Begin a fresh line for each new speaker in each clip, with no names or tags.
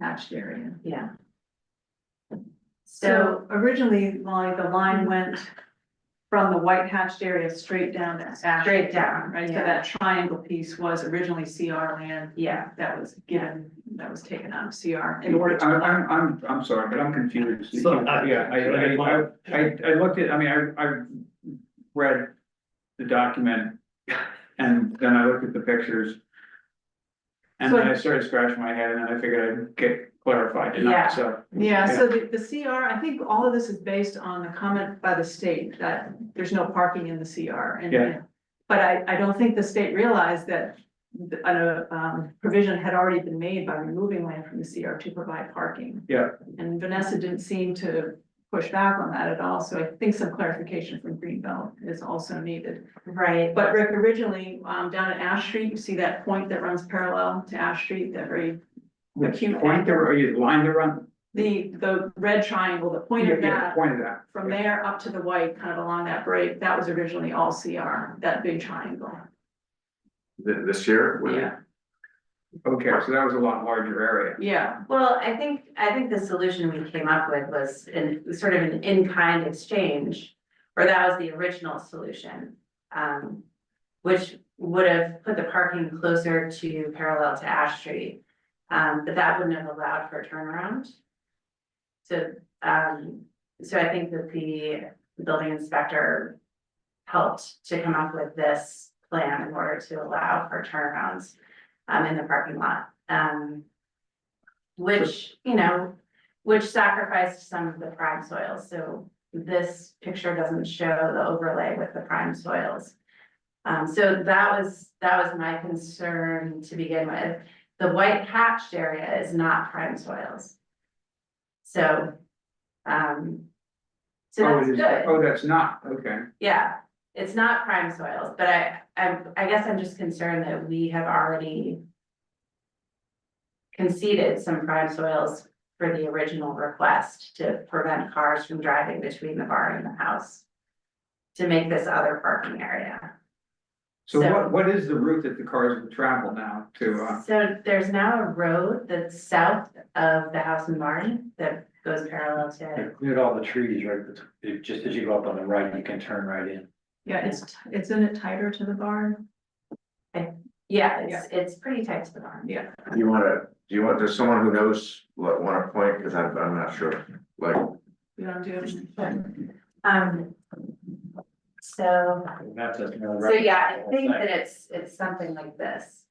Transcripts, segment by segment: hatched area.
yeah. So,
So originally, like the line
Mm-hmm.
went from the white hatched area straight down to Ash.
Straight down,
Right, so
yeah.
that triangle piece was originally CR land
yeah,
that was given, that was taken out of CR in order to.
I'm, I'm, I'm, I'm sorry, but I'm confused.
So, I-
Yeah, I, I, I, I, I looked at, I mean, I, I read the document and then I looked at the pictures. And then I started scratching my head and then I figured I'd get clarified
Yeah.
tonight, so.
Yeah, so the, the CR, I think all of this is based on the comment by the state that there's no parking in the CR and.
Yeah.
But I, I don't think the state realized that the, uh, um, provision had already been made by removing land from the CR to provide parking.
Yeah.
And Vanessa didn't seem to push back on that at all, so I think some clarification from Greenbelt is also needed.
right,
But Rick, originally, um, down at Ash Street, you see that point that runs parallel to Ash Street, that very
The
Acute
point there, or you lined around?
the, the red triangle, the point
Yeah,
of
yeah,
that,
Point of that.
from there up to the white, kind of along that break, that was originally all CR, that big triangle.
Th- this year, with
Yeah,
Okay, so that was a lot larger area.
yeah,
well, I think, I think the solution we came up with was in, sort of an in-kind exchange. Or that was the original solution, um, which would have put the parking closer to parallel to Ash Street. Um, but that wouldn't have allowed for a turnaround. So, um, so I think that the building inspector helped to come up with this plan in order to allow for turnarounds um, in the parking lot. Um, which, you know, which sacrificed some of the prime soils, so this picture doesn't show the overlay with the prime soils. Um, so that was, that was my concern to begin with. The white hatched area is not prime soils. So, um, so
Oh,
that's
it is-
good.
Oh, that's not, okay.
Yeah, it's not prime soils, but I, I, I guess I'm just concerned that we have already. Conceded some prime soils for the original request to prevent cars from driving between the bar and the house. To make this other parking area.
So
So-
what, what is the route that the cars would travel now to, uh,
So there's now a road that's south of the house and barn that goes parallel to,
It cleared all the trees, right, but it- just as you go up on the right, you can turn right in.
yeah, it's, t- it's in it tighter to the barn,
yeah, it's, it's pretty tight to the barn.
yeah.
Do you wanna, do you want, there's someone who knows, what, wanna point, cause I'm, I'm not sure, like,
You don't do it.
Um. So.
That's just another
So
right.
yeah, I think that it's, it's something like this.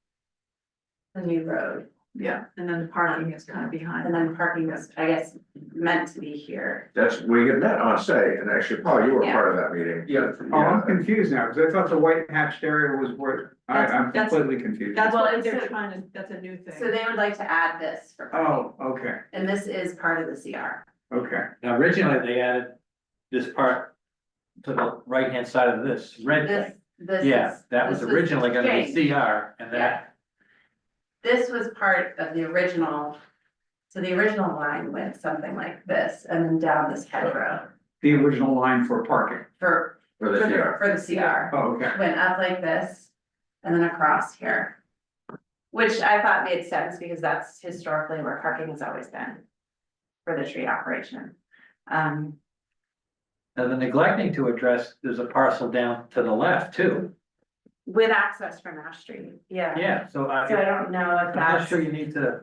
The new road,
Yeah, and then the parking is kind of behind.
and then parking was, I guess, meant to be here.
that's, we get met on site, and actually, Paul, you were part of that meeting.
Yeah, oh, I'm confused now, because I thought the white hatched area was where, I,
That's-
I'm
that's-
completely confused.
That's
Well,
what
it's
they're
a-
trying to, that's a new thing.
So they would like to add this for parking,
Oh, okay,
and this is part of the CR.
okay,
Now, originally, they added this part to the right-hand side of this red
This,
thing.
this is.
Yeah, that was
this
originally gonna be
changed.
CR and that,
This was part of the original, so the original line went something like this, and then down this head row
the original line for parking,
for,
For
for
this
the,
year,
for the CR.
oh, okay,
went up like this and then across here. Which I thought made sense because that's historically where parking has always been for the tree operation. Um,
now the neglecting to address, there's a parcel down to the left too.
with access from Ash Street, yeah.
Yeah, so
So I
I,
don't know if
I'm not
that's,
sure you need to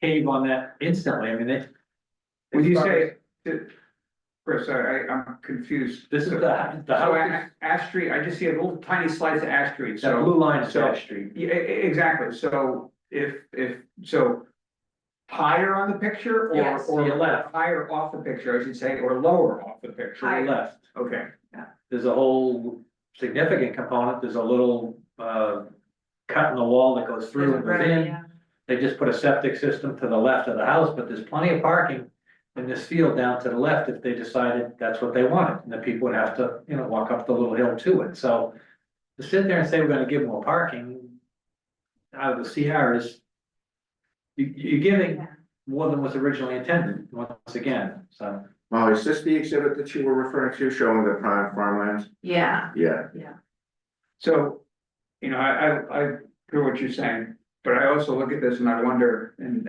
cave on that instantly, I mean, they.
when you say, that- Chris, I, I- I'm confused.
This is
So-
the, the
So
house,
A- Ash Street, I just see a little tiny slice of Ash Street,
is- that
so,
blue line is
so-
Ash Street.
yeah, e- e- exactly, so if, if, so. Higher on the picture or,
Yes.
To your
or
left,
higher off the picture, I should say, or lower off the
to your
picture,
left.
okay.
there's a whole significant component, there's a little uh cut in the wall that goes through and goes in.
yeah,
They just put a septic system to the left of the house, but there's plenty of parking in this field down to the left if they decided that's what they wanted. And the people would have to, you know, walk up the little hill to it, so to sit there and say we're gonna give more parking out of the CR is you you're giving
Yeah.
more than was originally intended, once again, so.
Molly, is this the exhibit that you were referring to, showing the prime farmlands?
yeah,
Yeah,
So, you know, I, I, I hear what you're saying, but I also look at this and I wonder, and,